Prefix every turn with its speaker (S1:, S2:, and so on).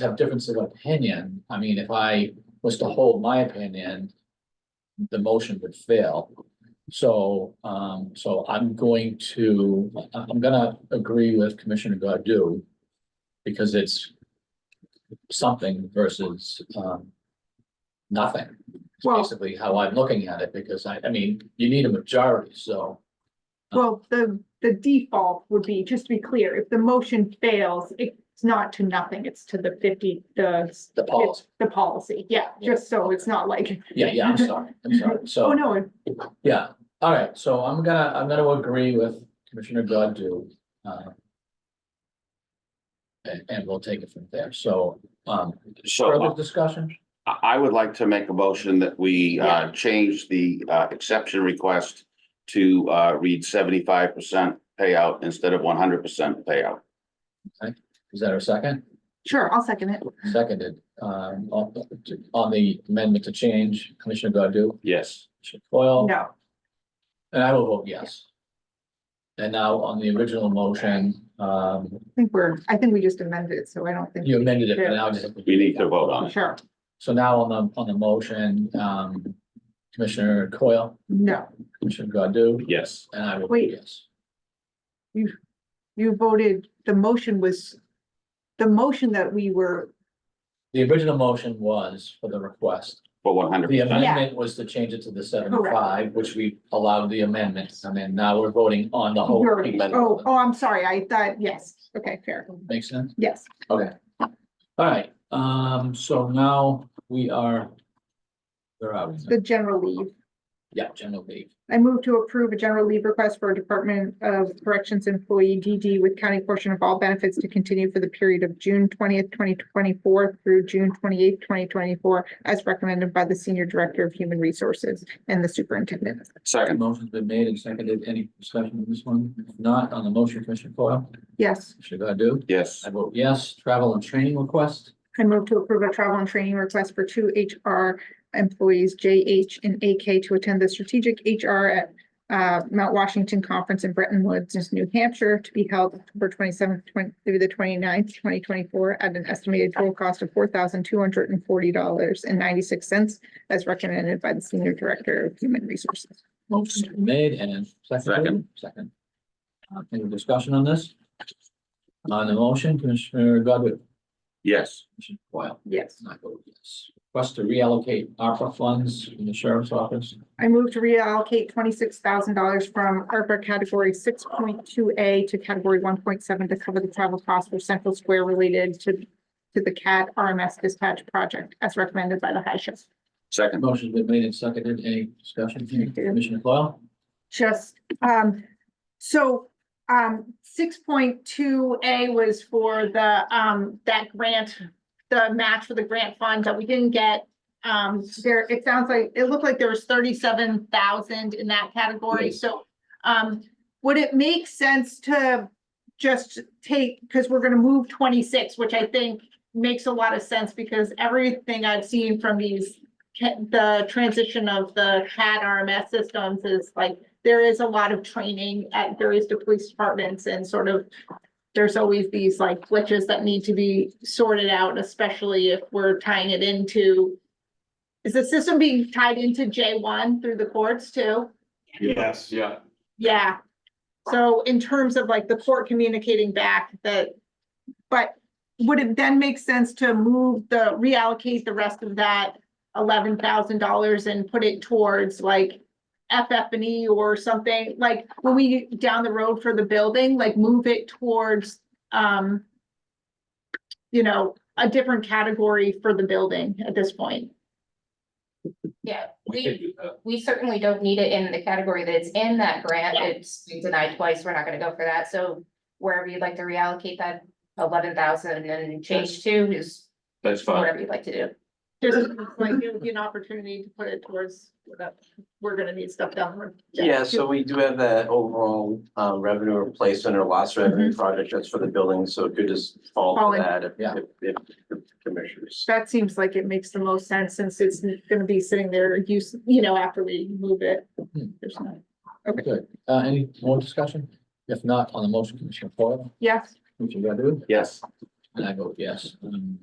S1: have differences of opinion, I mean, if I was to hold my opinion. The motion would fail. So, um, so I'm going to, I- I'm gonna agree with Commissioner Godu. Because it's. Something versus, um. Nothing, It's
S2: Well-
S1: basically how I'm looking at it, because I, I mean, you need a majority, so.
S2: Well, the, the default would be, just to be clear, if the motion fails, it's not to nothing, it's to the fifty, the.
S1: The policy.
S2: The policy, yeah, just so it's not like,
S1: Yeah, yeah, I'm sorry, I'm sorry, so.
S2: oh, no,
S1: Yeah, all right, so I'm gonna, I'm gonna agree with Commissioner Godu. uh, And, and we'll take it from there, so, um, further
S3: So uh,
S1: discussion?
S3: I, I would like to make a motion that we, uh, change the, uh, exception request to, uh, read seventy-five percent payout instead of one hundred percent payout.
S1: Is that our second?
S2: sure, I'll second it.
S1: Seconded, um, on, on the amendment to change, Commissioner Godu,
S3: Yes.
S1: Commissioner Foil?
S2: No,
S1: And I will vote yes. And now on the original motion, um,
S2: I think we're, I think we just amended it, so I don't think,
S1: you amended it, but now just.
S3: We need to vote on it.
S2: sure,
S1: So now on the, on the motion, um, Commissioner Coyle,
S2: no.
S1: Commissioner Godu?
S3: Yes.
S1: And I will, vote
S2: Wait.
S1: yes.
S2: You voted, the motion was, the motion that we were,
S1: The original motion was for the request.
S3: For one hundred
S1: The
S3: percent.
S1: amendment was to change it to the seventy-five, which we allowed the amendment, and then now we're voting on the whole.
S2: You're- oh,
S1: amendment.
S2: oh, I'm sorry, I thought, yes, okay, fair,
S1: Make sense?
S2: yes.
S1: Okay. All right, um, so now we are. Where are we?
S2: The general leave.
S1: Yeah, general leave.
S2: I move to approve a general leave request for a Department of Corrections employee DD with county portion of all benefits to continue for the period of June twentieth, twenty twenty-four through June twenty-eighth, twenty twenty-four, as recommended by the Senior Director of Human Resources and the Superintendent.
S3: Second,
S1: Motion's been made and seconded. Any discussion on this one? If Not on the motion, Commissioner Coyle?
S2: Yes,
S1: Should I do?
S3: yes.
S1: I vote yes. Travel and training request?
S2: I move to approve a travel and training request for two HR employees, JH and AK, to attend the Strategic HR at uh, Mount Washington Conference in Bretton Woods, New Hampshire, to be held October twenty-seventh through the 29th, twenty twenty-four, at an estimated total cost of four thousand two hundred and forty dollars and ninety-six cents, as recommended by the Senior Director of Human Resources.
S1: Motion made and seconded, second. Uh, Any discussion on this? On the motion, Commissioner Godu?
S3: Yes.
S1: Commissioner Coyle?
S2: Yes.
S1: And I vote yes. Request to reallocate ARPA funds in the sheriff's office.
S2: I move to reallocate twenty-six thousand dollars from ARPA category six point two A to category one point seven to cover the travel costs for Central Square related to to the CAD RMS dispatch project as recommended by the high sheriff.
S3: Second,
S1: Motion's been made and seconded. Any discussion? Commissioner Coyle?
S2: Just, um, so, um, six point two A was for the, um, that grant, the match for the grant fund that we didn't get. Um, there, it sounds like, it looked like there was thirty-seven thousand in that category,
S1: Yes.
S2: so, um, would it make sense to just take, because we're gonna move twenty-six, which I think makes a lot of sense because everything I've seen from these ca- the transition of the CAD RMS systems is like, there is a lot of training at various de- police departments and sort of there's always these like glitches that need to be sorted out, especially if we're tying it into is the system being tied into J one through the courts too?
S4: Yes. Yeah.
S2: Yeah. So in terms of like the court communicating back that, but would it then make sense to move the, reallocate the rest of that eleven thousand dollars and put it towards like FF and E or something, like when we get down the road for the building, like move it towards, um, you know, a different category for the building at this point.
S5: Yeah,
S4: We could
S5: we,
S4: do that.
S5: we certainly don't need it in the category that it's in that grant.
S2: Yeah.
S5: It's been denied twice. We're not gonna go for that. So wherever you'd like to reallocate that eleven thousand and change to is
S4: That's fine.
S5: whatever you'd like to do.
S2: Just like it would be an opportunity to put it towards, what we're gonna need stuff down. the road.
S6: Yeah, so we do have that overall um revenue replacement or loss revenue project that's for the building, so it could just fall
S2: Fall in.
S6: to that if
S1: Yeah.
S6: if if the commissioners.
S2: That seems like it makes the most sense since it's gonna be sitting there use, you know, after we move it.
S1: Hmm.
S2: There's no-
S1: Good. Uh, any more discussion? If not, on the motion, Commissioner Coyle?
S2: Yes.
S1: Commissioner Godu?
S3: yes.
S1: And I vote yes. Um,